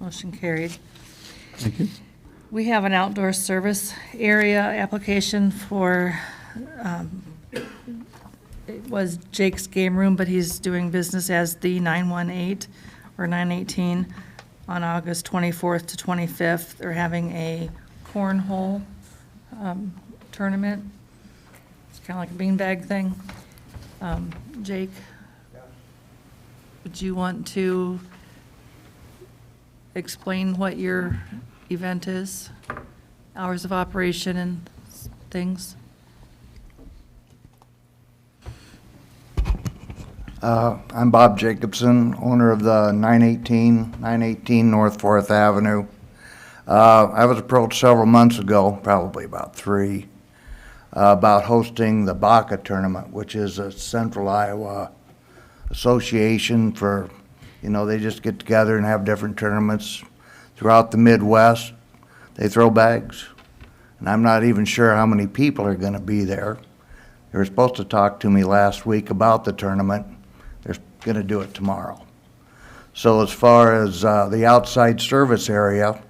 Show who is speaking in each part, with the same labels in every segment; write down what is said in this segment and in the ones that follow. Speaker 1: Motion carried.
Speaker 2: Thank you.
Speaker 1: We have an outdoor service area application for, um, it was Jake's Game Room, but he's doing business as the 918 or 918 on August 24th to 25th. They're having a cornhole um, tournament. It's kind of like a beanbag thing. Um, Jake, would you want to explain what your event is, hours of operation and things?
Speaker 3: Uh, I'm Bob Jacobson, owner of the 918, 918 North Fourth Avenue. Uh, I was approached several months ago, probably about three, uh, about hosting the Baca Tournament, which is a Central Iowa association for, you know, they just get together and have different tournaments throughout the Midwest. They throw bags, and I'm not even sure how many people are going to be there. They were supposed to talk to me last week about the tournament. They're going to do it tomorrow. So as far as uh, the outside service area,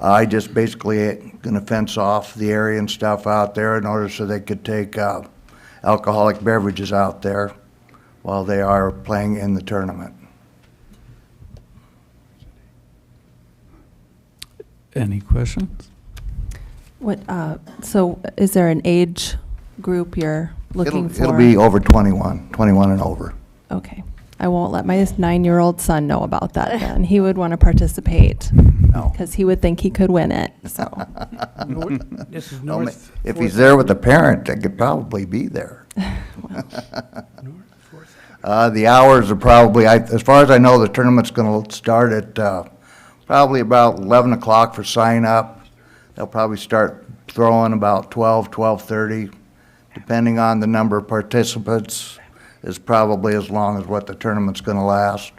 Speaker 3: I just basically going to fence off the area and stuff out there in order so they could take uh, alcoholic beverages out there while they are playing in the tournament.
Speaker 2: Any questions?
Speaker 4: What, uh, so is there an age group you're looking
Speaker 3: It'll-
Speaker 4: for?
Speaker 3: It'll be over 21, 21 and over.
Speaker 4: Okay. I won't let my nine-year-old son know about that then. He would want to participate
Speaker 3: No.
Speaker 4: because he would think he could win it, so.
Speaker 5: North- This is
Speaker 3: Well, ma-
Speaker 5: north.
Speaker 3: If
Speaker 5: Fourth-
Speaker 3: he's there with a parent, they could probably be there.
Speaker 5: North Fourth Avenue.
Speaker 3: Uh, the hours are probably, I, as far as I know, the tournament's gonna start at, uh, probably about eleven o'clock for sign up. They'll probably start throwing about twelve, twelve-thirty, depending on the number of participants, is probably as long as what the tournament's gonna last.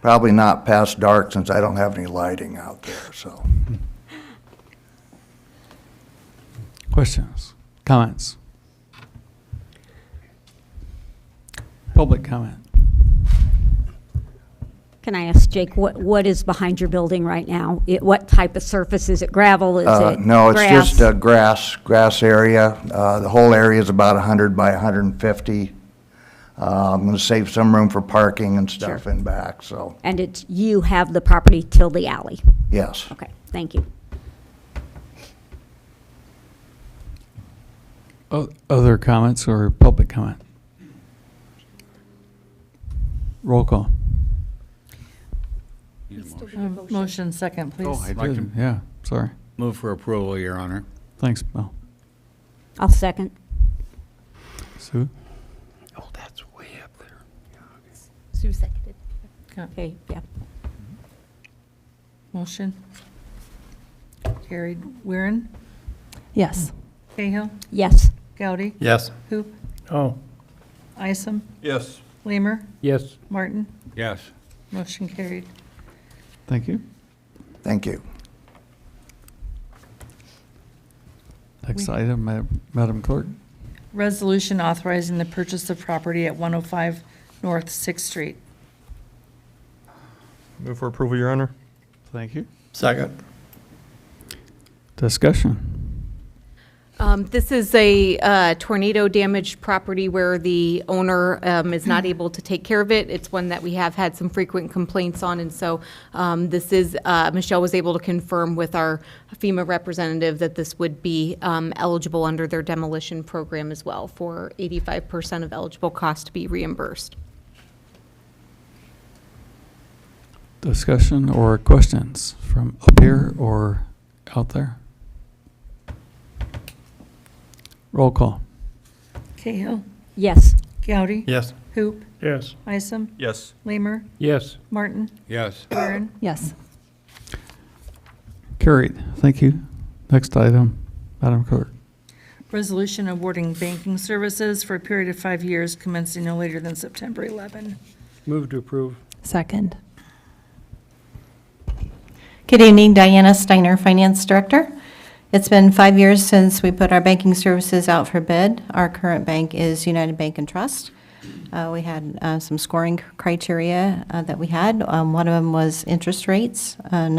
Speaker 3: Probably not past dark since I don't have any lighting out there, so.
Speaker 2: Questions? Comments? Public comment?
Speaker 6: Can I ask Jake, what, what is behind your building right now? It, what type of surface? Is it gravel? Is
Speaker 3: Uh,
Speaker 6: it
Speaker 3: no, it's just
Speaker 6: grass?
Speaker 3: a grass, grass area. Uh, the whole area is about hundred by hundred and fifty. Uh, I'm gonna save some room for parking and stuff in back, so,
Speaker 6: And it's, you have the property till the alley?
Speaker 3: yes.
Speaker 6: Okay, thank you.
Speaker 2: O- Other comments or public comment? Roll call.
Speaker 1: Um, Motion second, please.
Speaker 7: I'd like to
Speaker 2: Yeah, sorry.
Speaker 7: move for approval, Your Honor.
Speaker 2: Thanks, Mel.
Speaker 6: I'll second.
Speaker 2: Sue?
Speaker 5: Oh, that's way up there.
Speaker 8: Sue seconded.
Speaker 6: Okay, yeah.
Speaker 1: Motion. Carried. Weirin,
Speaker 4: Yes.
Speaker 1: Cahill,
Speaker 6: Yes.
Speaker 1: Goudy,
Speaker 7: Yes.
Speaker 1: Hoop,
Speaker 5: Oh.
Speaker 1: Isom,
Speaker 7: Yes.
Speaker 1: Lamer,
Speaker 5: Yes.
Speaker 1: Martin.
Speaker 7: Yes.
Speaker 1: Motion carried.
Speaker 2: Thank you.
Speaker 3: Thank you.
Speaker 2: Next item, Ma- Madam Clerk.
Speaker 1: Resolution authorizing the purchase of property at 105 North Sixth Street.
Speaker 9: Move for approval, Your Honor.
Speaker 2: Thank you.
Speaker 7: Second.
Speaker 2: Discussion.
Speaker 8: Um, This is a uh, tornado-damaged property where the owner um, is not able to take care of it. It's one that we have had some frequent complaints on, and so um, this is, uh, Michelle was able to confirm with our FEMA representative that this would be um, eligible under their demolition program as well, for 85% of eligible cost to be reimbursed.
Speaker 2: Discussion or questions from up here or out there? Roll call.
Speaker 1: Cahill,
Speaker 6: Yes.
Speaker 1: Goudy,
Speaker 7: Yes.
Speaker 1: Hoop,
Speaker 5: Yes.
Speaker 1: Isom,
Speaker 9: Yes.
Speaker 1: Lamer,
Speaker 5: Yes.
Speaker 1: Martin,
Speaker 7: Yes.
Speaker 1: Weirin.
Speaker 4: Yes.
Speaker 2: Carried. Thank you. Next item, Madam Clerk.
Speaker 1: Resolution awarding banking services for a period of five years commencing no later than September 11.
Speaker 5: Move to approve.
Speaker 4: Second.
Speaker 10: Good evening, Diana Steiner, Finance Director. It's been five years since we put our banking services out for bid. Our current bank is United Bank and Trust. Uh, We had uh, some scoring criteria uh, that we had. Um, One of them was interest rates. Another